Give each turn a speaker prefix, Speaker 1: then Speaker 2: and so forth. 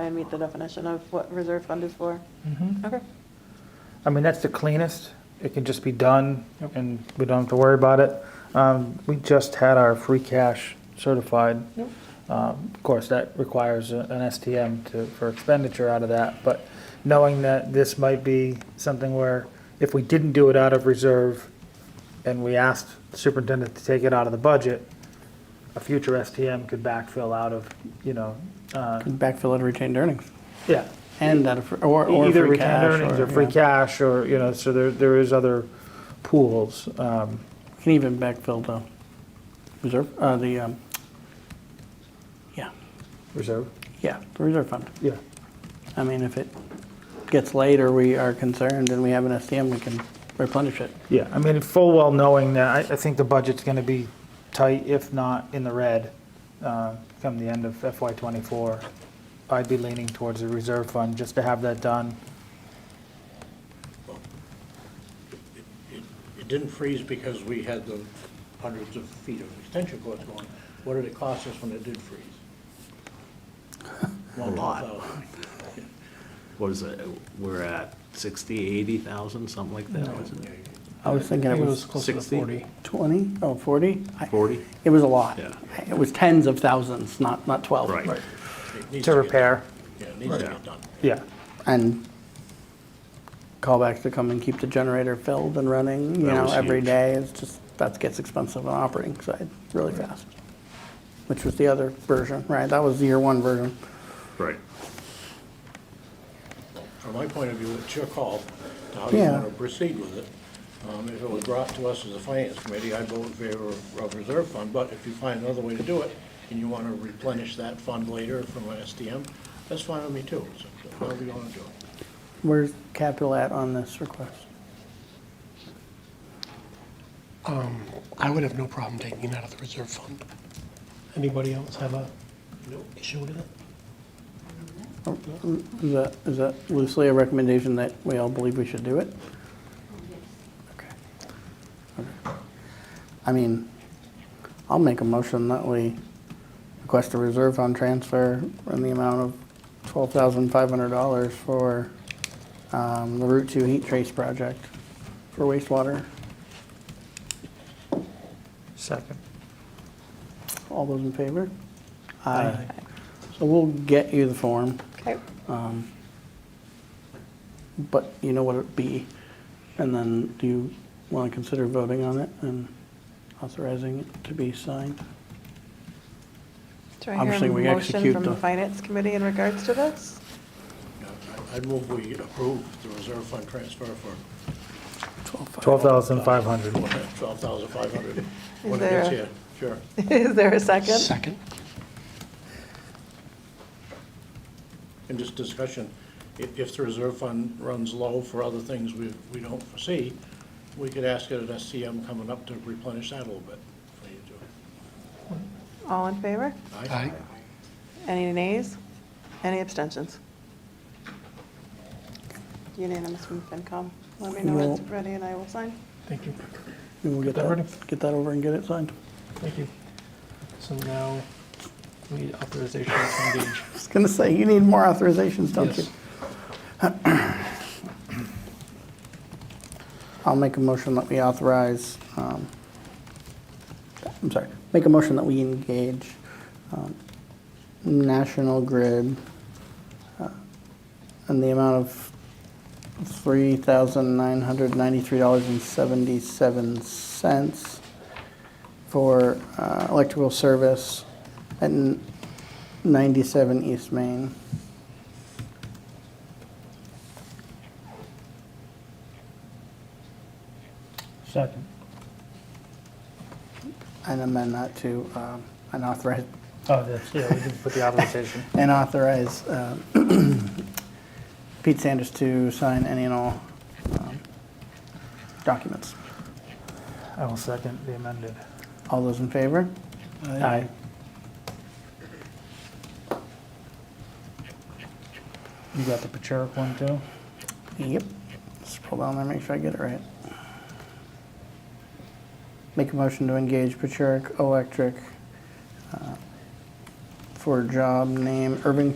Speaker 1: I meet the definition of what reserve fund is for.
Speaker 2: Mm-hmm.
Speaker 1: Okay.
Speaker 3: I mean, that's the cleanest. It can just be done and we don't have to worry about it. Um, we just had our free cash certified. Um, of course, that requires a- an STM to, for expenditure out of that, but knowing that this might be something where if we didn't do it out of reserve and we asked the superintendent to take it out of the budget, a future STM could backfill out of, you know, uh,
Speaker 2: Backfill out of retained earnings
Speaker 3: yeah,
Speaker 2: and out of, fr- or, or
Speaker 3: either
Speaker 2: free
Speaker 3: retained
Speaker 2: cash.
Speaker 3: earnings or free
Speaker 2: yeah.
Speaker 3: cash, or, you know, so there, there is other pools. Um,
Speaker 2: Can even backfill the reserve, uh, the, um, yeah,
Speaker 3: Reserve?
Speaker 2: yeah, the reserve fund.
Speaker 3: Yeah.
Speaker 2: I mean, if it gets late or we are concerned and we have an STM, we can replenish it.
Speaker 3: Yeah, I mean, full well knowing that, I, I think the budget's gonna be tight, if not in the red, uh, come the end of FY twenty-four. I'd be leaning towards the reserve fund, just to have that done.
Speaker 4: It didn't freeze because we had the hundreds of feet of extension cords going. What did it cost us when it did freeze? A
Speaker 5: lot. What is it, we're at 60, 80,000, something like that, wasn't it?
Speaker 2: I was thinking it was
Speaker 5: closer to 60? 40.
Speaker 2: 20, oh, 40? I-
Speaker 5: 40?
Speaker 2: It was a lot.
Speaker 5: Yeah.
Speaker 2: It was tens of thousands, not, not 12.
Speaker 5: Oh, Right.
Speaker 3: To repair,
Speaker 4: Yeah, it needs to get done.
Speaker 3: yeah.
Speaker 2: and callbacks to come and keep the generator filled and running, you
Speaker 5: That
Speaker 2: know,
Speaker 5: was
Speaker 2: every
Speaker 5: huge.
Speaker 2: day. It's just, that gets expensive on the operating side really fast. Which was the other version, right? That was the year one version.
Speaker 5: Right.
Speaker 4: From my point of view, it's your call to how you
Speaker 2: Yeah.
Speaker 4: want to proceed with it. Um, If it was brought to us as a finance committee, I'd vote in favor of of reserve fund, but if you find another way to do it, and you want to replenish that fund later from an STM, that's fine with me too. So However you want to do it.
Speaker 2: Where's capital at on this request?
Speaker 6: Um, I would have no problem taking it out of the reserve fund. Anybody else have a issue with it?
Speaker 2: Is that, is that loosely E a recommendation that we all believe we should do it? Okay. Okay. I mean, I'll make a motion that we request a reserve fund transfer in the amount of twelve thousand five hundred dollars for um, the Route Two Heat Trace Project for wastewater.
Speaker 3: Second.
Speaker 2: All those in favor? Aye. So we'll get you the form.
Speaker 1: Okay.
Speaker 2: but you know what it'd be. And then do you want to consider voting on it and authorizing it to be signed?
Speaker 1: Do I hear
Speaker 2: Obviously,
Speaker 1: a
Speaker 2: we
Speaker 1: motion
Speaker 2: execute
Speaker 1: from
Speaker 2: the-
Speaker 1: the finance committee in regards to this?
Speaker 4: Yeah, I- I'd move we approve the reserve fund transfer for
Speaker 3: Twelve thousand five hundred.
Speaker 4: Twelve thousand five hundred, when it
Speaker 1: there
Speaker 4: gets
Speaker 1: a-
Speaker 4: here, sure.
Speaker 1: Is there a second?
Speaker 6: Second.
Speaker 4: And just discussion, if, if the reserve fund runs low for other things we, we don't foresee, we could ask it at SCM coming up to replenish that a little bit. for you to-
Speaker 1: All in favor?
Speaker 4: Aye?
Speaker 6: Aye.
Speaker 1: Any nays? Any abstentions? Unanimous from FinCom. Let me know when it's
Speaker 2: Well-
Speaker 1: ready and I will sign.
Speaker 6: Thank you,
Speaker 2: And we'll get
Speaker 6: Get that ready.
Speaker 2: that, get that over and get it signed.
Speaker 6: thank you. So now we need authorization to engage.
Speaker 2: I was going to say, you need more authorizations, don't you?
Speaker 6: Yes.
Speaker 2: I'll make a motion that we authorize, um, I'm sorry, make a motion that we engage um, National Grid uh, in the amount of $3,993.77 for uh, electrical service at 97 East Main.
Speaker 3: Second.
Speaker 2: And amend that to um, an authorize,
Speaker 3: Oh, that's, yeah, we did put the authorization.
Speaker 2: and authorize um, Pete Sanders to sign any and all um, documents.
Speaker 3: I will second the amended.
Speaker 2: All those in favor?
Speaker 3: Aye. You got the Pachurk one too?
Speaker 2: Yep. Just scroll down there, make sure I get it right. Make a motion to engage Pachuric Electric uh, for job name Irving